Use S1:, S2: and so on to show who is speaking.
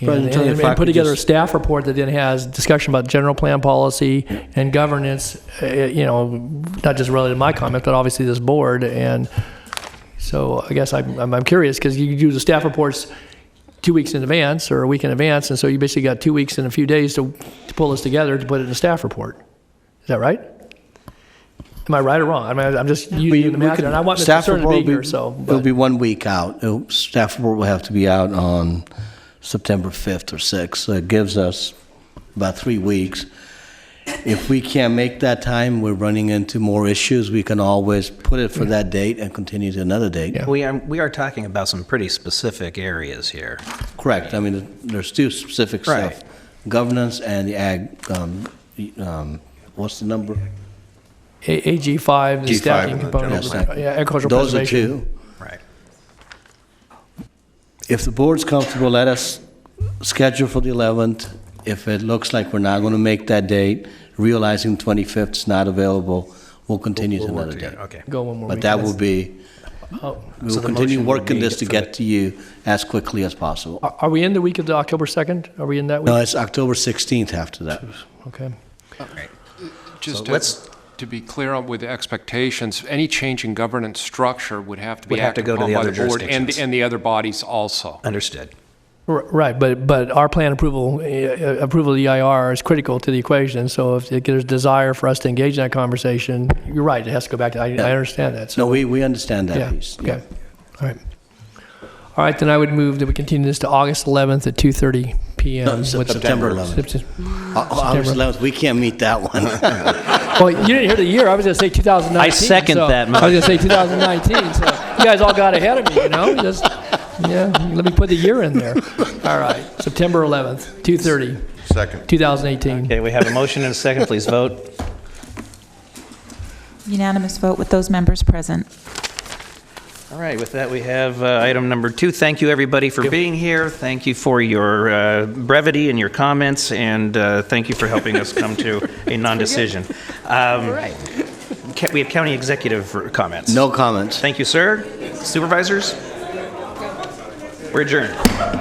S1: And,
S2: President, tell you
S1: and-
S2: if I
S1: and put
S2: could
S1: together a
S2: just-
S1: staff report that then has discussion about general plan policy and governance, uh, you know, not just related to my comment, but obviously this board. And so I guess I'm, I'm I'm curious, because you do the staff reports two weeks in advance or a week in advance, and so you basically got two weeks and a few days to, to pull this together to put it in a staff report. Is that right? Am I right or wrong? I mean, I'm just
S2: We-
S1: using the
S2: we
S1: math,
S2: could-
S1: here, and I want Mr.
S2: staff
S1: Stern to
S2: report
S1: be
S2: will
S1: here, so. but-
S2: It'll be one week out. It'll- Staff report will have to be out on September 5th or 6th. So It gives us about three weeks. If we can't make that time, we're running into more issues, we can always put it for that date and continue to another date.
S1: Yeah.
S3: We are, we are talking about some pretty specific areas here.
S2: Correct. I mean, there's two specific stuff.
S3: Right.
S2: Governance and the ag, um, the, um, what's the number?
S1: A- AG5, the
S4: G5
S1: stacking
S4: and the
S1: component,
S2: general
S1: of
S2: plan.
S1: the- yeah, agricultural
S2: Those are
S1: preservation.
S2: two.
S3: Right.
S2: If the board's comfortable, let us schedule for the 11th. If it looks like we're not going to make that date, realizing 25th is not available, we'll continue to
S3: We'll work
S2: another
S3: together.
S2: day.
S3: Okay.
S1: Go one more
S2: But
S1: week.
S2: that will be,
S3: Oh, So
S2: we'll
S3: the
S2: continue
S3: motion would
S2: working
S3: be
S2: this to
S3: for the-
S2: get to you as quickly as possible.
S1: Are are we in the week of the October 2nd? Are we in that
S2: No,
S1: week?
S2: it's October 16th after that.
S1: Okay.
S3: So
S4: Just
S3: let's-
S4: to, to be clear on with the expectations, any change in governance structure would have to be
S3: Would have to
S4: acted
S3: go to
S4: upon
S3: the
S4: by
S3: other
S4: the board and,
S3: jurisdictions.
S4: and the other bodies also.
S3: Understood.
S1: R- Right, but, but our plan approval, uh, approval of the EIR is critical to the equation, so if there's desire for us to engage in that conversation, you're right, it has to go back to, I I understand that, so,
S2: No, we, we understand
S1: yeah,
S2: that piece.
S1: okay, all right. All right, then I would move that we continue this to August 11th at 2:30
S2: No,
S1: PM.
S2: it's
S1: with-
S2: September 11th.
S1: Septem-
S2: Uh, August 11th, we can't meet that one.
S1: Well, you didn't hear the year. I was going to say 2019.
S3: I second
S1: so-
S3: that
S1: I was going to say 2019. So you guys all got ahead of me, you know. Just yeah, let me put the year in there. All right, September 11th, 2:30,
S4: Second.
S1: 2018.
S3: Okay, we have a motion and a second. Please vote.
S5: Unanimous vote with those members present.
S3: All right, with that, we have uh, item number two. Thank you, everybody, for being here. Thank you for your uh, brevity and your comments, and uh, thank you for helping us come to a non-decision. All right. We have county executive comments.
S2: No comments.
S3: Thank you, sir. Supervisors? We're adjourned.